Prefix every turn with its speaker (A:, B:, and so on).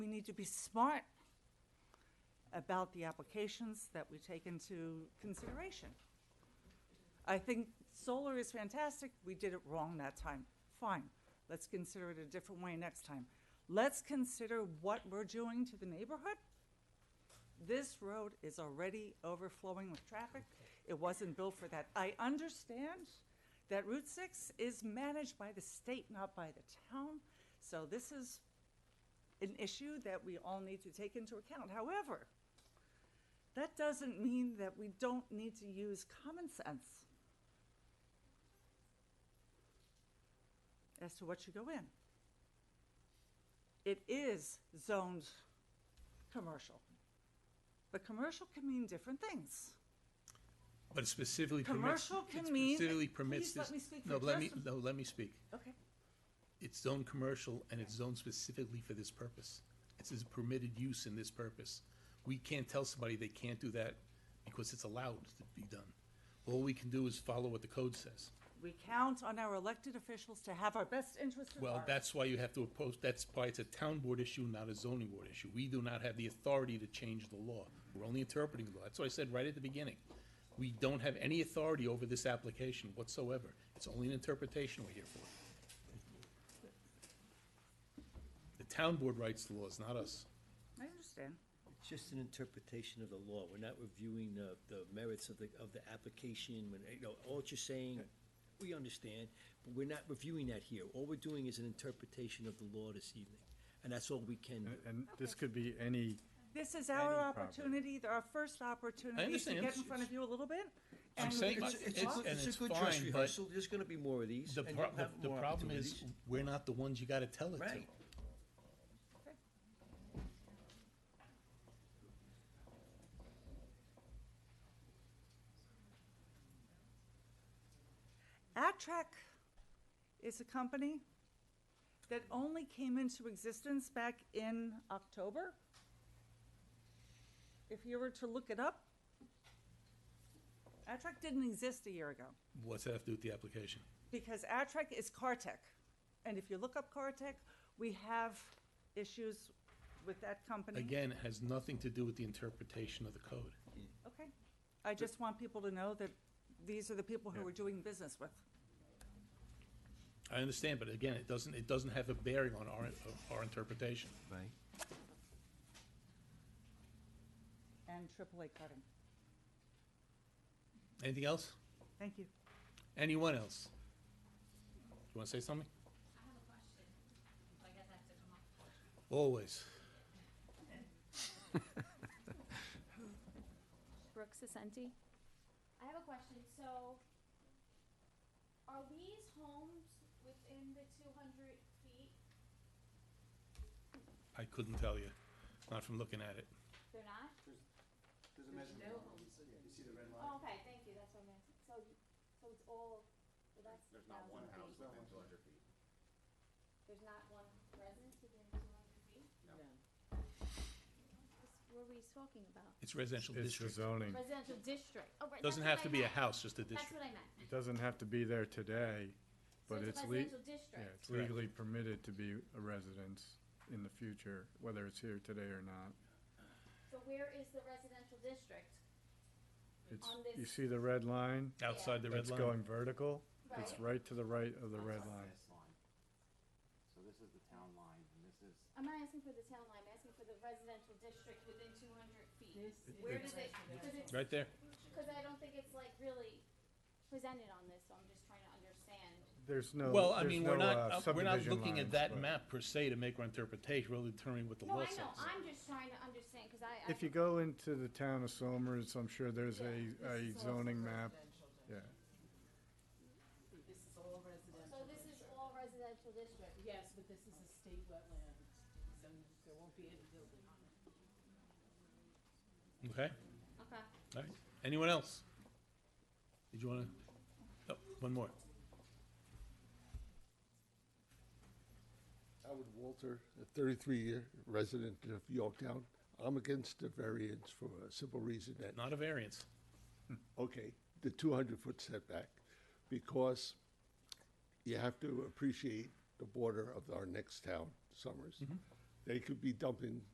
A: need to be smart about the applications that we take into consideration. I think solar is fantastic. We did it wrong that time. Fine. Let's consider it a different way next time. Let's consider what we're doing to the neighborhood. This road is already overflowing with traffic. It wasn't built for that. I understand that Route 6 is managed by the state, not by the town. So this is an issue that we all need to take into account. However, that doesn't mean that we don't need to use common sense as to what should go in. It is zoned commercial. But commercial can mean different things.
B: But it specifically permits.
A: Commercial can
B: it
A: mean-
B: Specifically permits
A: Please let
B: this.
A: me speak
B: No,
A: for
B: let me,
A: just
B: no, let me speak.
A: Okay.
B: It's zoned commercial and it's zoned specifically for this purpose. It says permitted use in this purpose. We can't tell somebody they can't do that because it's allowed to be done. All we can do is follow what the code says.
A: We count on our elected officials to have our best interests at
B: Well,
A: heart.
B: that's why you have to oppose, that's why it's a town board issue, not a zoning board issue. We do not have the authority to change the law. We're only interpreting the law. That's what I said right at the beginning. We don't have any authority over this application whatsoever. It's only an interpretation we're here for. The town board writes the laws, not us.
A: I understand.
C: It's just an interpretation of the law. We're not reviewing the, the merits of the, of the application, when, you know, all that you're saying, we understand, but we're not reviewing that here. All we're doing is an interpretation of the law this evening, and that's all we can
B: Uh,
C: do.
D: And- And this could be any,
A: This is our
D: Any property.
A: opportunity, th- our first opportunity to
B: understand.
A: get in
B: It's-
A: front of you a little bit.
B: I'm
A: and we
B: saying
A: can
B: it's-
A: talk.
B: it's- and
C: a
B: it's
C: good dress
B: fine, but
C: rehearsal. There's gonna be more of these,
B: The
C: and you'll
B: pro-
C: have
B: the
C: more
B: problem is,
C: opportunities.
B: we're not the ones you gotta tell it to.
C: Right.
A: Actrack is a company that only came into existence back in October. If you were to look it up, Attrack didn't exist a year ago
B: What's that have to do with the application?
A: because Attrack is Cartech. And if you look up Cartech, we have issues with that company.
B: Again, it has nothing to do with the interpretation of the code.
A: Okay. I just want people to know that these are the people who
D: Yeah.
A: we're doing business with.
B: I understand, but again, it doesn't, it doesn't have a bearing on our, our interpretation.
C: Right.
A: And AAA cutting.
B: Anything else?
A: Thank you.
B: Anyone else? You want to say something?
E: I have a question. I guess I have to come up.
B: Always.
E: Brooke Sisenti? I have a question. So are these homes within the two hundred feet?
B: I couldn't tell you, not from looking at it.
E: They're not? Oh, Okay, thank you. That's what I'm asking. So, so it's all, well, that's There's not one house within two hundred feet. There's not one residence within two hundred feet? What were we talking about?
B: It's residential
D: it's the
B: district.
D: zoning.
E: Residential district. Oh, right. that's
B: Hmm. Doesn't have
E: what I
B: to be a
E: meant.
B: house, just a
E: That's
B: district.
E: what I meant.
D: It doesn't have to be there today,
E: So
D: but
E: it's
D: it's
E: a
D: le-
E: residential
D: yeah,
E: district.
D: it's legally permitted to be a residence in the future, whether it's here today or not.
E: So where is the residential district?
D: It's,
E: On
D: you
E: this-
D: see the red line?
B: Outside the red
D: That's
B: line.
D: going vertical. It's
E: Right.
D: right to the right of the red line.
F: This line. So this is the town line, and this is,
E: I'm not asking for the town line, I'm asking for the residential district within two hundred feet. Where does it, cause it's,
B: Right there.
E: cause I don't think it's like really presented on this, so I'm just trying to understand.
D: There's no,
B: Well, I
D: there's
B: mean, we're
D: no,
B: not,
D: uh,
B: uh, we're not
D: subdivision
B: looking
D: lines,
B: at that
D: but
B: map per se to make our interpretation, we're determining what the
E: No,
B: law
E: I
B: says.
E: know, I'm just trying to understand, cause I, I.
D: If you
E: don't-
D: go into the town of Somers, I'm sure there's a, a uh, zoning map. Yeah,
G: This is all residential.
E: So this is all residential district,
G: Yes, but this is a state wetland, so there won't be any building on it.
B: Okay,
E: okay.
B: all right. Anyone else? Did you want to? Oh, one more.
H: Howard Walter, a 33-year resident of Yorktown. I'm against the variance for a simple reason that,
B: Not a variance.
H: okay, the 200-foot setback, because you have to appreciate the border of our next town, Summers. They could be dumping